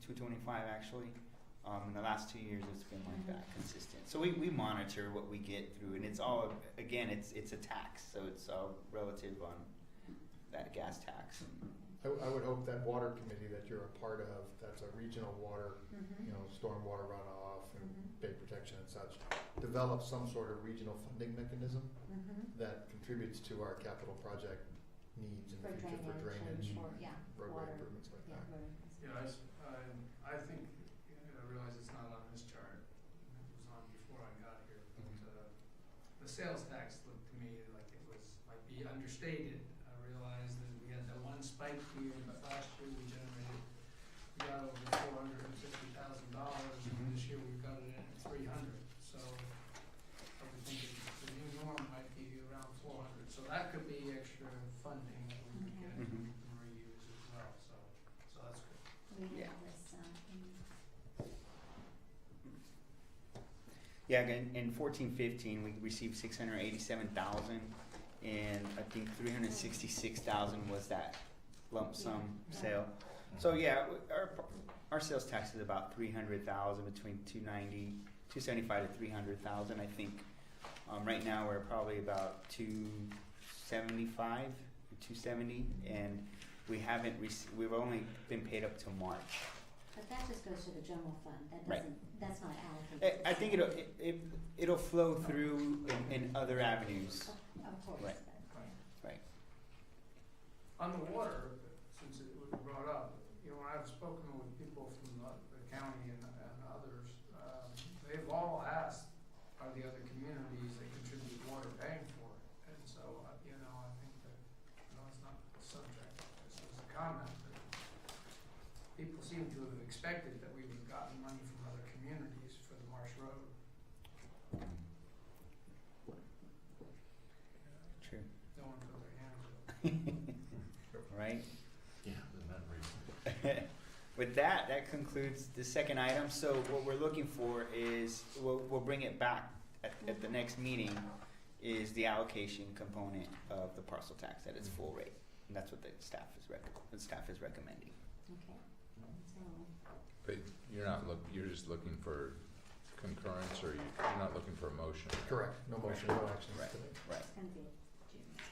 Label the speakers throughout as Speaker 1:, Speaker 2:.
Speaker 1: two twenty-five actually. Um, in the last two years, it's been like that consistent. So we, we monitor what we get through, and it's all again, it's it's a tax, so it's all relative on that gas tax. And,
Speaker 2: I, I would hope that water committee that you're a part of, that's a regional water, you
Speaker 1: Mm-hmm,
Speaker 2: know, stormwater runoff and
Speaker 3: Mm-hmm.
Speaker 2: bay protection and such, develop some sort of regional funding mechanism
Speaker 1: mm-hmm.
Speaker 2: that contributes to our capital project needs in the
Speaker 3: For
Speaker 2: future for
Speaker 3: drainage
Speaker 2: drainage,
Speaker 3: and for, yeah,
Speaker 2: roadway
Speaker 3: water,
Speaker 2: improvements like
Speaker 3: yeah,
Speaker 2: that.
Speaker 3: road.
Speaker 4: Yeah, I, s- I- I think, and I realize it's not on this chart, it was on before I got here, but, uh, the sales tax looked to me like it was, might be understated. I realized that we had that one spike year, but last year we generated, we got over four hundred and fifty thousand dollars,
Speaker 1: Mhm.
Speaker 4: and this year we've got it at three hundred, so I would think it- the new norm might be around four hundred, so that could be extra funding that we could get
Speaker 1: Mhm.
Speaker 4: and reuse as well, so, so that's good.
Speaker 3: We
Speaker 1: Yeah.
Speaker 3: have this, um, in-
Speaker 1: Yeah, again, in fourteen fifteen, we received six hundred eighty-seven thousand, and I think three hundred sixty-six thousand was that lump sum
Speaker 3: Yeah.
Speaker 1: sale. So yeah, w- our our sales tax is about three hundred thousand between 290, 275 to three hundred thousand. I think um, right now we're probably about two seventy-five, two seventy, and we haven't rec- we've only been paid up to March.
Speaker 3: but that just goes to the general fund, that
Speaker 1: Right.
Speaker 3: doesn't, that's not
Speaker 1: I,
Speaker 3: allocated.
Speaker 1: I think it'll it, it, it'll flow through in, in other avenues.
Speaker 3: Of- Oh, Of course,
Speaker 1: Right.
Speaker 3: but-
Speaker 4: On the water, since it was brought up, you know, when I've spoken with people from the the county and, and others, um, they've all asked, are the other communities that contribute water paying for it? And so, uh, you know, I think that, you know, it's not the subject, this is a comment, but people seem to have expected that we would have gotten money from other communities for the Marsh Road.
Speaker 1: True.
Speaker 4: No one put their hands up.
Speaker 1: Right.
Speaker 5: Yeah, isn't that reasonable?
Speaker 1: With that, that concludes the second item. So what we're looking for is we'll, we'll bring it back at, at the next meeting. Is the allocation component of the parcel tax at its full rate, and that's what the staff is rec- the staff is recommending.
Speaker 3: okay, so,
Speaker 5: But you're not look, you're just looking for concurrence, or you- you're not looking for a motion?
Speaker 2: Correct, no motion, no actions
Speaker 1: Right.
Speaker 2: today.
Speaker 1: Right.
Speaker 3: it's gonna be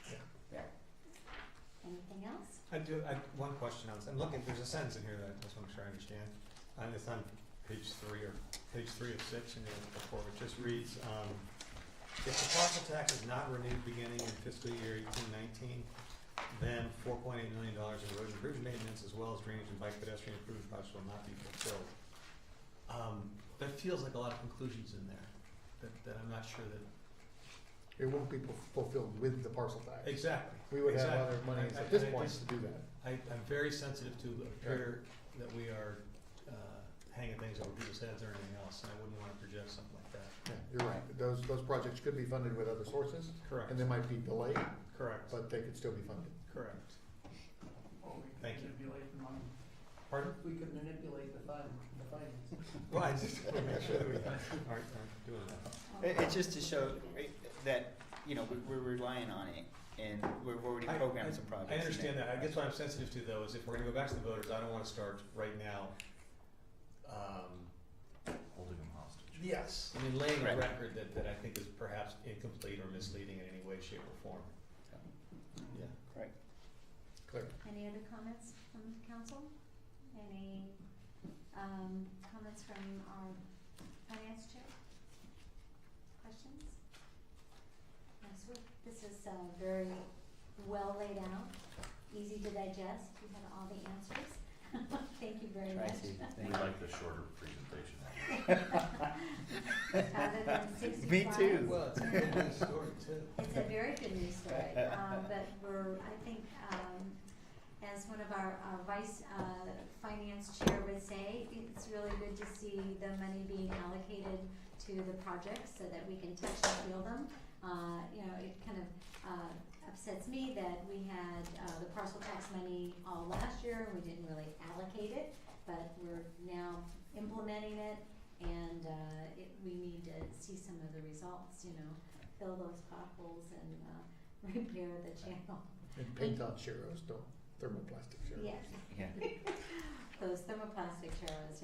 Speaker 3: June.
Speaker 1: Yeah.
Speaker 3: Anything else?
Speaker 6: I do, I, one question on, this. I'm looking, there's a sentence in here that I just want to make sure I understand. And it's on page three or, page three of six in the report, it just reads, um, if the parcel tax is not renewed beginning in fiscal year eighteen nineteen, then four point eight million dollars in road and bridge maintenance as well as drainage and bike pedestrian improvement projects will not be fulfilled. Um, that feels like a lot of conclusions in there, that, that I'm not sure that,
Speaker 2: It won't be fu- fulfilled with the parcel tax.
Speaker 6: exactly.
Speaker 2: We would have
Speaker 6: exactly.
Speaker 2: other monies
Speaker 6: I- I-
Speaker 2: at this
Speaker 6: I
Speaker 2: point
Speaker 6: just-
Speaker 2: to do that.
Speaker 6: I, I'm very sensitive to appear that we are uh, hanging things over people's heads or anything else, and I wouldn't want to project something like that.
Speaker 2: Yeah, you're right, those, those projects could be funded with other sources,
Speaker 6: Correct.
Speaker 2: and they might be delayed,
Speaker 6: Correct.
Speaker 2: but they could still be funded.
Speaker 6: Correct.
Speaker 4: Or we could
Speaker 6: Thank you.
Speaker 4: manipulate the money.
Speaker 6: Pardon?
Speaker 4: We could manipulate the fund, the finance.
Speaker 6: Well, I just want to make sure that we aren't aren't doing that.
Speaker 1: It, it's just to show right, that you know we, we're relying on it, and we've already
Speaker 6: I-
Speaker 1: programmed some projects.
Speaker 6: I
Speaker 1: in
Speaker 6: understand
Speaker 1: there.
Speaker 6: that. I guess what I'm sensitive to though is if we're going to go back to the voters, I don't want to start right now. um,
Speaker 5: Holding them hostage.
Speaker 6: Yes. I mean, laying a
Speaker 1: Right.
Speaker 6: record that, that I think is perhaps incomplete or misleading in any way, shape, or form.
Speaker 1: So,
Speaker 6: Yeah.
Speaker 1: Right.
Speaker 2: Clear.
Speaker 3: Any other comments from the council? Any um, comments from our finance chair? Questions? Yes, we- this is uh, very well laid out, easy to digest. You had all the answers. Thank you very
Speaker 1: Try
Speaker 3: much.
Speaker 1: to.
Speaker 5: We
Speaker 1: Thank you.
Speaker 5: like the shorter presentation.
Speaker 3: Rather than
Speaker 1: Me
Speaker 3: 65.
Speaker 1: too.
Speaker 6: Well, it's a good news story too.
Speaker 3: It's a very good news story, um, but we're, I think, um, as one of our, uh vice, uh, finance chair would say, it's really good to see the money being allocated to the projects so that we can touch and feel them. Uh, you know, it kind of, uh, upsets me that we had, uh, the parcel tax money all last year and we didn't really allocate it, but we're now implementing it and, uh, it, we need to see some of the results, you know, fill those potholes and uh, repair the channel.
Speaker 2: And paint on sheros, don't thermoplastic sheros.
Speaker 3: Yes.
Speaker 1: Yeah.
Speaker 3: those thermoplastic churros,